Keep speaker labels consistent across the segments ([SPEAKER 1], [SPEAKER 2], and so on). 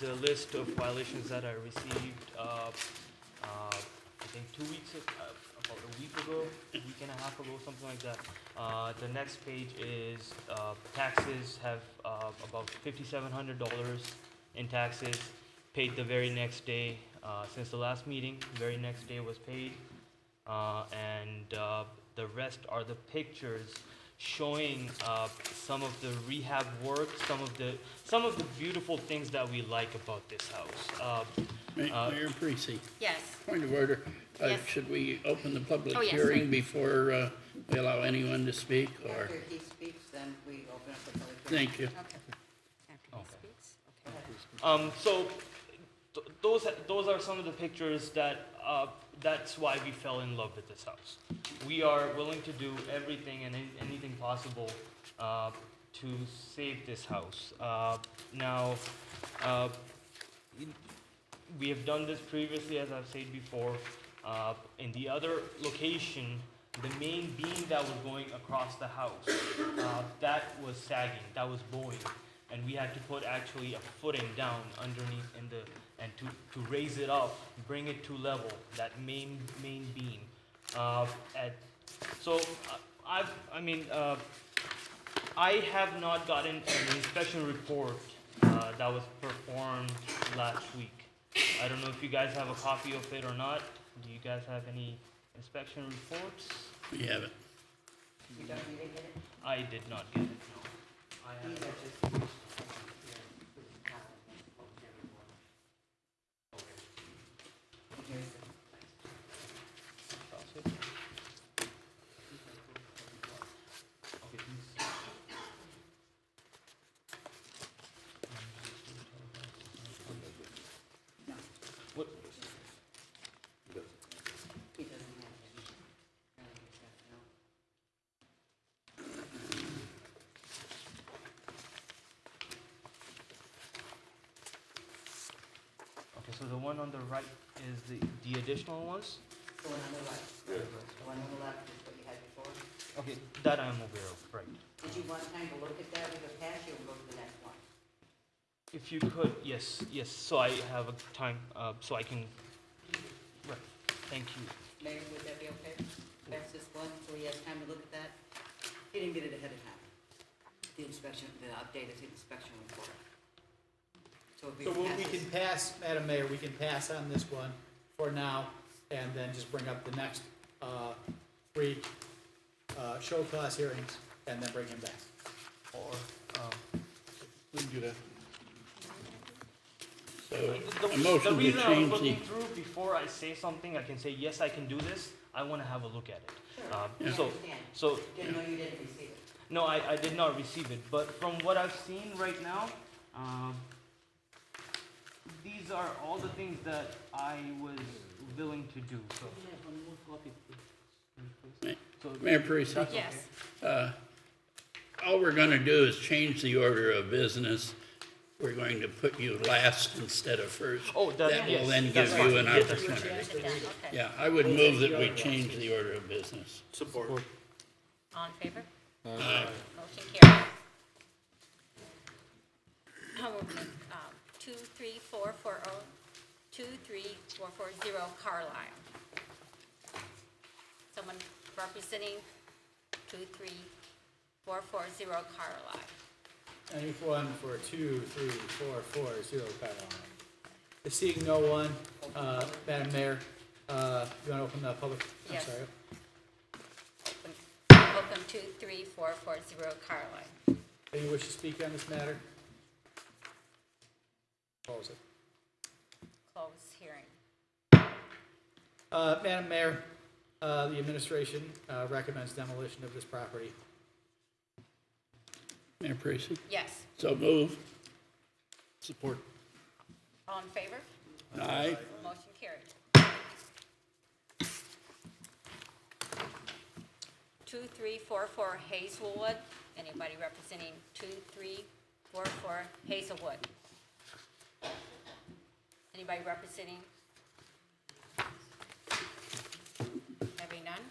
[SPEAKER 1] the list of violations that I received, uh, uh, I think two weeks, ag- uh, about a week ago, a week and a half ago, something like that. Uh, the next page is, uh, taxes have, uh, about fifty-seven hundred dollars in taxes, paid the very next day, uh, since the last meeting, very next day was paid. Uh, and, uh, the rest are the pictures showing, uh, some of the rehab work, some of the, some of the beautiful things that we like about this house. Uh,
[SPEAKER 2] Ma- Mayor Parisi,
[SPEAKER 3] Yes,
[SPEAKER 2] point of order. Uh,
[SPEAKER 3] Yes.
[SPEAKER 2] Should we open the public
[SPEAKER 3] Oh, yes,
[SPEAKER 2] hearing
[SPEAKER 3] right.
[SPEAKER 2] before uh, we allow anyone to speak, or?
[SPEAKER 4] After he speaks, then we open up the public hearing.
[SPEAKER 2] Thank you.
[SPEAKER 3] okay. After he speaks, okay.
[SPEAKER 1] Um, so th- those those are some of the pictures that uh, that's why we fell in love with this house. We are willing to do everything and an- anything possible uh, to save this house. Uh, now. Uh, we have done this previously, as I've said before. Uh, in the other location, the main beam that was going across the house, uh, that was sagging, that was bowing, and we had to put actually a footing down underneath in the and to, to raise it up, bring it to level, that main main beam. Uh, at, so uh, I've I mean. Uh, I have not gotten an inspection report uh, that was performed last week. I don't know if you guys have a copy of it or not. Do you guys have any inspection reports?
[SPEAKER 2] We have it.
[SPEAKER 4] You don't need to get it?
[SPEAKER 1] I did not get it, no. I
[SPEAKER 4] These
[SPEAKER 1] have-
[SPEAKER 4] are just. yeah, this is not a public hearing one. And here's the-
[SPEAKER 1] Okay, these- What,
[SPEAKER 4] He doesn't have it. No, he's got it, no.
[SPEAKER 1] okay, so the one on the right is the, the additional ones?
[SPEAKER 4] The one on the left, the one on the left is what you had before.
[SPEAKER 1] Okay, that I'm aware of, right.
[SPEAKER 4] Did you want time to look at that with a pass, you'll go to the next one?
[SPEAKER 1] If you could, yes, yes, so I have a time, uh, so I can, right, thank you.
[SPEAKER 4] Mayor, would that be okay? Pass this one, so he has time to look at that? He didn't get it ahead of time, the inspection, the updated inspection report. So if we
[SPEAKER 5] So what
[SPEAKER 4] pass
[SPEAKER 5] we
[SPEAKER 4] this.
[SPEAKER 5] can pass, Madam Mayor, we can pass on this one for now, and then just bring up the next, uh, three, uh, show cause hearings, and then bring him back.
[SPEAKER 1] Or, um,
[SPEAKER 2] We can do that.
[SPEAKER 1] the,
[SPEAKER 2] So,
[SPEAKER 1] the
[SPEAKER 2] a motion to
[SPEAKER 1] reason I was
[SPEAKER 2] change the,
[SPEAKER 1] looking through before I say something, I can say, yes, I can do this, I wanna have a look at it.
[SPEAKER 5] Uh,
[SPEAKER 4] Sure.
[SPEAKER 1] Um,
[SPEAKER 4] Yeah.
[SPEAKER 1] so,
[SPEAKER 4] Yeah.
[SPEAKER 1] so,
[SPEAKER 4] Didn't know you didn't receive it.
[SPEAKER 1] no, I, I did not receive it, but from what I've seen right now, um, these are all the things that I was willing to do, so. So,
[SPEAKER 2] Mayor Parisi?
[SPEAKER 3] Yes,
[SPEAKER 2] Uh, All we're going to do is change the order of business. We're going to put you last instead of first.
[SPEAKER 1] Oh, that-
[SPEAKER 2] will
[SPEAKER 1] yes,
[SPEAKER 2] then
[SPEAKER 1] that's
[SPEAKER 2] give you
[SPEAKER 1] fine.
[SPEAKER 2] an
[SPEAKER 1] Yeah, that's
[SPEAKER 2] opportunity.
[SPEAKER 3] sit down, okay.
[SPEAKER 2] Yeah, I would move that we change the order of business.
[SPEAKER 6] Support.
[SPEAKER 3] All in favor? Motion carried. Now we're gonna, um, two, three, four, four, oh, two, three, four, four, zero Carlisle. Someone representing two, three, four, four, zero Carlisle.
[SPEAKER 5] Anyone for two, three, four, four, zero, five, one. Seeing no one, uh, Madam Mayor, uh, you wanna open the public, I'm
[SPEAKER 3] Yes.
[SPEAKER 5] sorry,
[SPEAKER 3] Welcome to 3440 Carlisle.
[SPEAKER 5] any wish to speak on this matter? Close it.
[SPEAKER 3] Close hearing.
[SPEAKER 5] Uh, Madam Mayor, uh, the administration, uh, recommends demolition of this property.
[SPEAKER 2] Mayor Parisi?
[SPEAKER 3] Yes,
[SPEAKER 2] So move. Support.
[SPEAKER 3] all in favor?
[SPEAKER 2] Aye.
[SPEAKER 3] Motion carried. 2344 Hazelwood. Anybody representing 2344 Hazelwood? Anybody representing? Having none?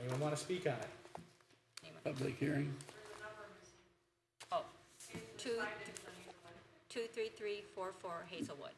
[SPEAKER 5] Anyone wanna speak on it?
[SPEAKER 3] Anyone?
[SPEAKER 2] Public hearing.
[SPEAKER 3] Oh, two, two three three four four Hazelwood.